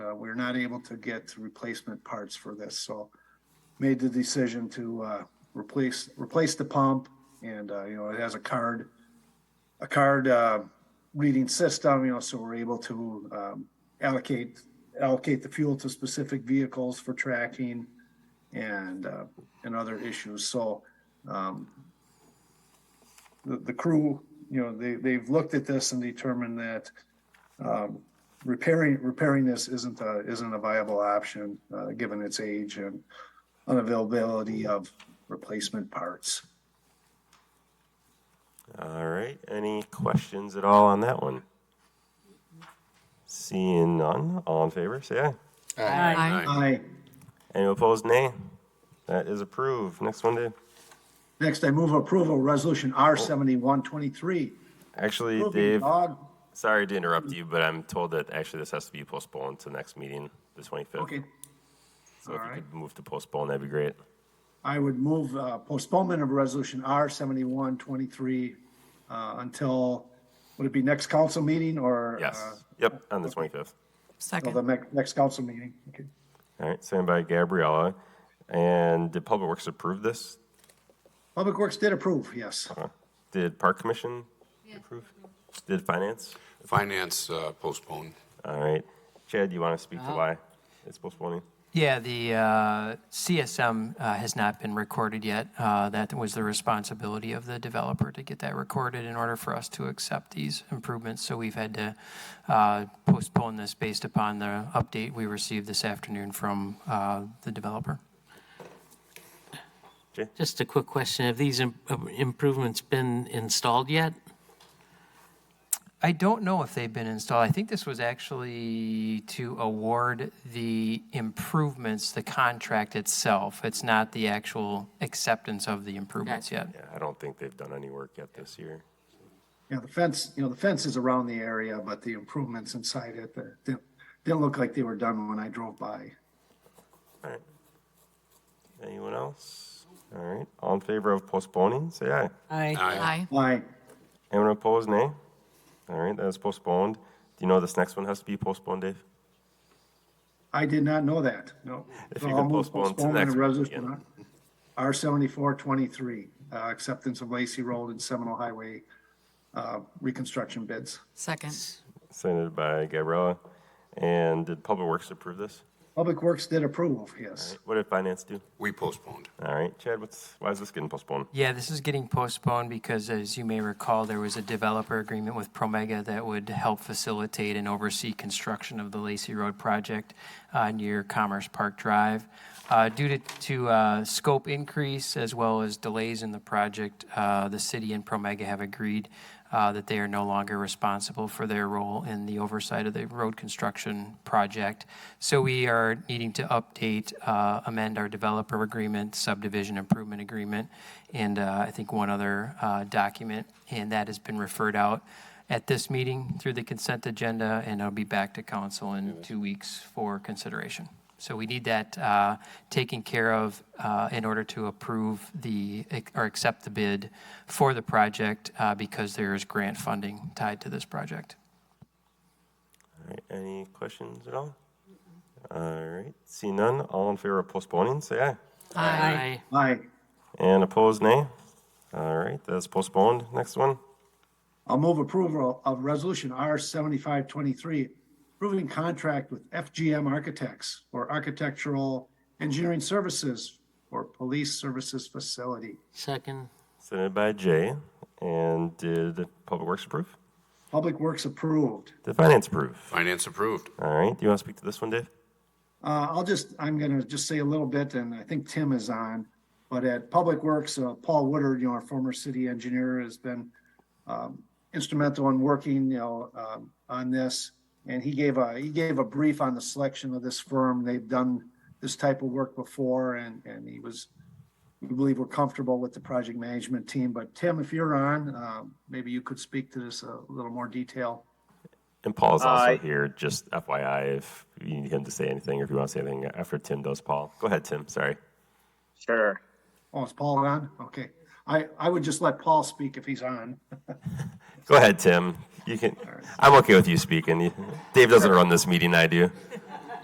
uh, we're not able to get replacement parts for this, so made the decision to uh, replace replace the pump, and uh, you know it has a card a card uh, reading system, you know, so we're able to um, allocate allocate the fuel to specific vehicles for tracking and uh, and other issues. So um, the, the crew, you know, they they've looked at this and determined that um, repairing repairing this isn't a isn't a viable option uh, given its age and unavailability of replacement parts. All right. Any questions at all on that one? Seeing none, all in favor, say aye. Aye. Aye. Any opposed, nay. That is approved. Next one, Dave. Next, I move approval, resolution R seventy-one twenty-three. Actually, Dave, sorry to interrupt you, but I'm told that actually this has to be postponed to next meeting, the 25th. Okay, So if all you right. could move to postpone, that'd be great. I would move uh, postponement of resolution R seventy-one twenty-three uh, until, would it be next council meeting or? uh, Yes. Yep, on the 25th. Till the Second. next, next council meeting. Okay. All right, signed by Gabriella. And did Public Works approve this? Public Works did approve, yes. Did Park Commission approve? Did Finance? Finance uh, postponed. All right. Chad, do you want to speak to why it's postponing? Yeah, the uh, CSM uh, has not been recorded yet. Uh, That was the responsibility of the developer to get that recorded in order for us to accept these improvements. So we've had to uh, postpone this based upon the update we received this afternoon from uh, the developer. Just a quick question. Have these im- uh, improvements been installed yet? I don't know if they've been installed. I think this was actually to award the improvements, the contract itself. It's not the actual acceptance of the improvements yet. Yeah, I don't think they've done any work yet this year. Yeah, the fence, you know, the fence is around the area, but the improvements inside it, uh, didn't, didn't look like they were done when I drove by. All right. Anyone else? All right. All in favor of postponing, say aye. Aye. Aye. Aye. Aye. Anyone opposed, nay? All right, that is postponed. Do you know this next one has to be postponed, Dave? I did not know that, no. If So you I'll could move postpone to postponement next of resolution meeting. R seventy-four twenty-three, uh, acceptance of Lacey Road and Seminole Highway, uh, reconstruction bids. Second. Signed by Gabriella. And did Public Works approve this? Public Works did approve, yes. What did Finance do? We postponed. All right, Chad, what's, why is this getting postponed? Yeah, this is getting postponed because, as you may recall, there was a developer agreement with Promega that would help facilitate and oversee construction of the Lacey Road project uh, near Commerce Park Drive. Uh, Due to, to uh, scope increase as well as delays in the project, uh, the city and Promega have agreed uh, that they are no longer responsible for their role in the oversight of the road construction project. So we are needing to update, uh, amend our developer agreement, subdivision improvement agreement, and uh, I think one other uh, document, and that has been referred out at this meeting through the consent agenda, and it'll be back to council in two weeks for consideration. So we need that uh, taken care of uh, in order to approve the, or accept the bid for the project uh, because there is grant funding tied to this project. All right, any questions at all? All right, see none, all in favor of postponing, say aye. Aye. Aye. And opposed, nay? All right, that's postponed. Next one. I'll move approval of resolution R seventy-five twenty-three, approving contract with FGM Architects for architectural engineering services for police services facility. Second. Submitted by Jay. And did Public Works approve? Public Works approved. Did Finance approve? Finance approved. All right, do you want to speak to this one, Dave? Uh, I'll just, I'm gonna just say a little bit, and I think Tim is on, but at Public Works, uh, Paul Woodard, you know, our former city engineer, has been um, instrumental in working, you know, um, on this. And he gave a, he gave a brief on the selection of this firm. They've done this type of work before, and, and he was, we believe we're comfortable with the project management team. But Tim, if you're on, um, maybe you could speak to this a little more detail. And Paul's also here, just FYI, if you need him to say anything or if you want to say anything after Tim does Paul. Go ahead, Tim. Sorry. Sure. Oh, is Paul on? Okay. I, I would just let Paul speak if he's on. Go ahead, Tim. You can. I'm okay with you speaking. You- Dave doesn't run this meeting, I do.